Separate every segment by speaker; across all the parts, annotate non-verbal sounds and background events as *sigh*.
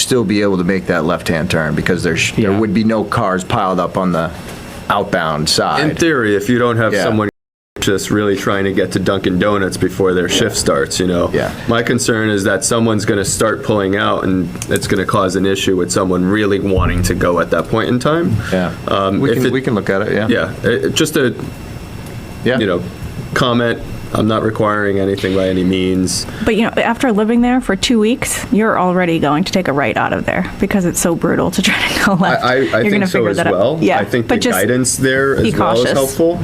Speaker 1: still be able to make that left-hand turn because there's, there
Speaker 2: Yeah.
Speaker 1: would be no cars piled up on the outbound
Speaker 3: In
Speaker 1: side.
Speaker 3: theory, if you don't have
Speaker 1: Yeah.
Speaker 3: someone just really trying to get to Dunkin' Donuts before their shift starts, you know?
Speaker 1: Yeah.
Speaker 3: My concern is that someone's gonna start pulling out and it's gonna cause an issue with someone really wanting to go at that point in time.
Speaker 1: Yeah.
Speaker 3: Um,
Speaker 1: We
Speaker 3: if
Speaker 1: can,
Speaker 3: it-
Speaker 1: we can look at it, yeah.
Speaker 3: Yeah, it- it- just a,
Speaker 1: Yeah.
Speaker 3: you know, comment. I'm not requiring anything by any means.
Speaker 4: But you know, after living there for two weeks, you're already going to take a right out of there because it's so brutal to try to go
Speaker 3: I,
Speaker 4: left.
Speaker 3: I,
Speaker 4: You're
Speaker 3: I
Speaker 4: gonna
Speaker 3: think so
Speaker 4: figure
Speaker 3: as
Speaker 4: that out.
Speaker 3: well.
Speaker 4: Yeah,
Speaker 3: I think the
Speaker 4: but just-
Speaker 3: guidance there
Speaker 4: be
Speaker 3: as well is
Speaker 4: cautious.
Speaker 3: helpful.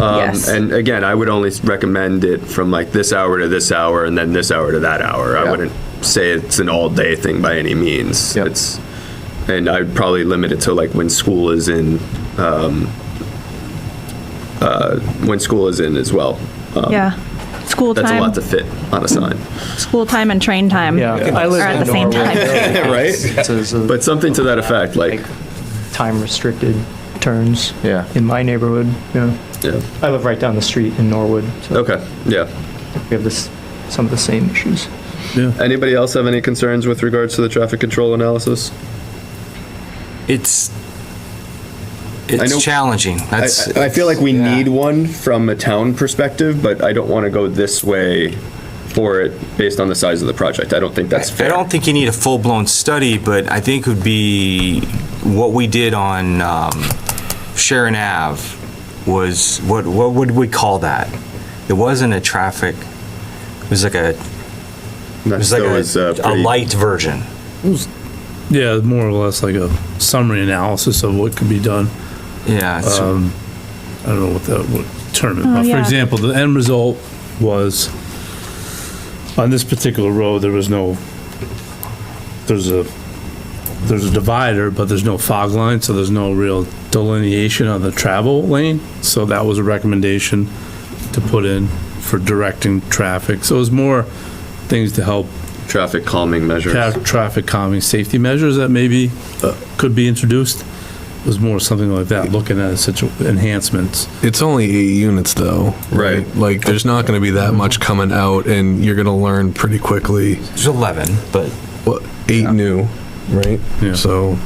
Speaker 3: Um,
Speaker 4: Yes.
Speaker 3: And again, I would only s- recommend it from like this hour to this hour and then this hour to that hour. I
Speaker 1: Yeah.
Speaker 3: wouldn't say it's an all day thing by any means.
Speaker 1: Yep.
Speaker 3: It's, and I'd probably limit it to like when school is in, um, uh, when school is in as well. Um,
Speaker 4: Yeah, school
Speaker 3: That's a
Speaker 4: time,
Speaker 3: lot to fit on a sign.
Speaker 4: school time and train time
Speaker 2: Yeah. I
Speaker 4: are
Speaker 2: live
Speaker 4: at
Speaker 2: in
Speaker 4: the same
Speaker 2: Norway. *laughs*
Speaker 4: time.
Speaker 3: Right?
Speaker 2: It's a-
Speaker 3: But something to that effect, like,
Speaker 2: Like time restricted turns.
Speaker 1: Yeah.
Speaker 2: In my neighborhood, yeah.
Speaker 3: yeah.
Speaker 2: I live right down the street in Norwood, so
Speaker 3: Okay, yeah.
Speaker 2: we have this, some of the same issues.
Speaker 3: Anybody else have any concerns with regards to the traffic control analysis?
Speaker 5: It's,
Speaker 3: know-
Speaker 5: it's challenging.
Speaker 3: I,
Speaker 5: That's.
Speaker 3: I feel like we
Speaker 5: yeah.
Speaker 3: need one from a town perspective, but I don't want to go this way for it based on the size of the project. I don't think that's
Speaker 5: I
Speaker 3: fair.
Speaker 5: don't think you need a full-blown study, but I think would be, what we did on um, Sharon Ave was, what, what would we call that? It wasn't a traffic, it was like a, it
Speaker 3: That
Speaker 5: was like
Speaker 3: still is, uh,
Speaker 5: a, a
Speaker 3: pretty-
Speaker 5: light version.
Speaker 6: Yeah, more or less like a summary analysis of what could be done.
Speaker 5: Yeah, so-
Speaker 6: Um, I don't know what that would term it,
Speaker 4: Oh,
Speaker 6: but for
Speaker 4: yeah.
Speaker 6: example, the end result was, on this particular road, there was no, there's a, there's a divider, but there's no fog line, so there's no real delineation on the travel lane. So that was a recommendation to put in for directing traffic. So it was more things to help
Speaker 3: Traffic calming measures.
Speaker 6: tra- traffic calming safety measures that maybe uh, could be introduced was more something like that, looking at such enhancements.
Speaker 7: It's only eight units though.
Speaker 3: Right.
Speaker 7: Like there's not going to be that much coming out and you're going to learn pretty quickly
Speaker 5: there's 11, but
Speaker 7: what eight new, right?
Speaker 6: Yeah.
Speaker 7: So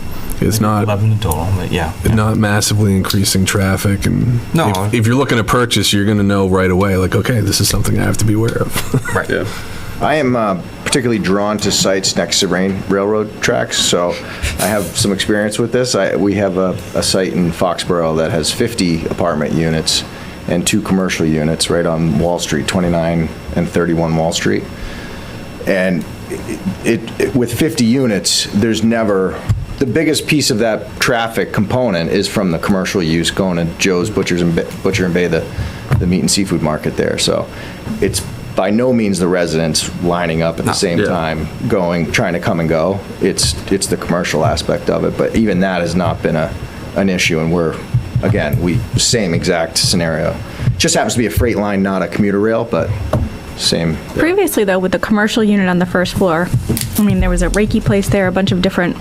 Speaker 7: it's not
Speaker 5: 11 in total, but yeah.
Speaker 7: not massively increasing traffic and
Speaker 5: No.
Speaker 7: if, if you're looking to purchase, you're going to know right away like okay, this is something I have to be aware of.
Speaker 5: Right.
Speaker 3: Yeah.
Speaker 1: I am uh, particularly drawn to sites next to rain, railroad tracks, so I have some experience with this. I, we have a, a site in Foxborough that has 50 apartment units and two commercial units right on Wall Street, 29 and 31 Wall Street. And it, it- with 50 units, there's never, the biggest piece of that traffic component is from the commercial use going to Joe's Butchers and, Ba- Butcher and Bay, the, the meat and seafood market there. So it's by no means the residents lining up at the same
Speaker 3: Yeah.
Speaker 1: time, going, trying to come and go. It's, it's the commercial aspect of it, but even that has not been a, an issue, and we're, again, we, same exact scenario. Just happens to be a freight line, not a commuter rail, but same,
Speaker 4: Previously, though, with the commercial unit on the first floor, I mean, there was a Reiki place there, a bunch of different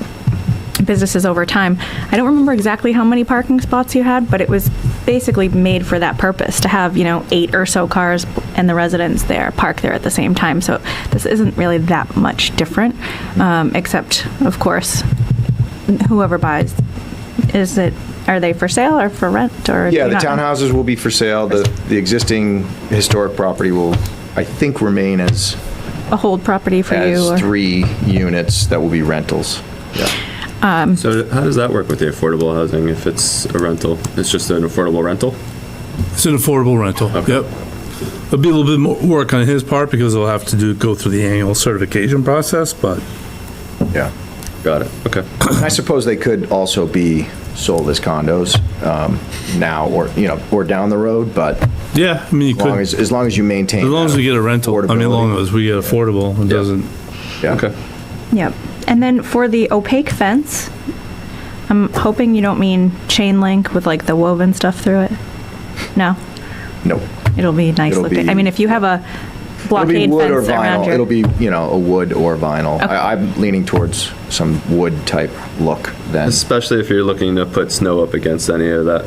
Speaker 4: businesses over time. I don't remember exactly how many parking spots you had, but it was basically made for that purpose, to have, you know, eight or so cars and the residents there park there at the same time. So this isn't really that much different, um, except, of course, whoever buys, is it, are they for sale or for rent or?
Speaker 1: Yeah,
Speaker 4: you're
Speaker 1: the
Speaker 4: not-
Speaker 1: townhouses will be for sale. The, the existing historic property will, I think, remain as,
Speaker 4: A hold property for you? or-
Speaker 1: as three units that will be rentals.
Speaker 3: So how does that work with the affordable housing if it's a rental? It's just an affordable rental?
Speaker 6: It's an affordable rental, yep. It'll be a little bit more work on his part because he'll have to do, go through the annual certification process, but
Speaker 1: Yeah.
Speaker 3: Got it. Okay.
Speaker 1: I suppose they could also be sold as condos um, now or, you know, or down the road, but
Speaker 6: yeah, I mean,
Speaker 1: as
Speaker 6: you
Speaker 1: long
Speaker 6: could,
Speaker 1: as,
Speaker 6: as
Speaker 1: as long as you maintain.
Speaker 6: long as we get a rental, I mean, as long as we get affordable, it doesn't,
Speaker 1: Yeah.
Speaker 3: Okay.
Speaker 4: Yep. And then for the opaque fence, I'm hoping you don't mean chain link with like the woven stuff through it. No,
Speaker 1: No.
Speaker 4: it'll be nice
Speaker 1: It'll
Speaker 4: looking. I
Speaker 1: be-
Speaker 4: mean, if you have a
Speaker 1: It'll be
Speaker 4: blockade
Speaker 1: wood or
Speaker 4: fence around
Speaker 1: vinyl. It'll
Speaker 4: your,
Speaker 1: be, you know, a wood or vinyl.
Speaker 4: Okay.
Speaker 1: I- I'm leaning towards some wood type look then.
Speaker 3: Especially if you're looking to put snow up against any of that.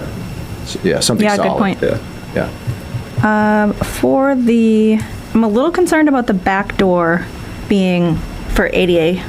Speaker 1: Yeah, something
Speaker 4: Yeah,
Speaker 1: solid.
Speaker 4: good point.
Speaker 3: Yeah.
Speaker 1: Yeah.
Speaker 4: for the, I'm a little concerned about the back door being for ADA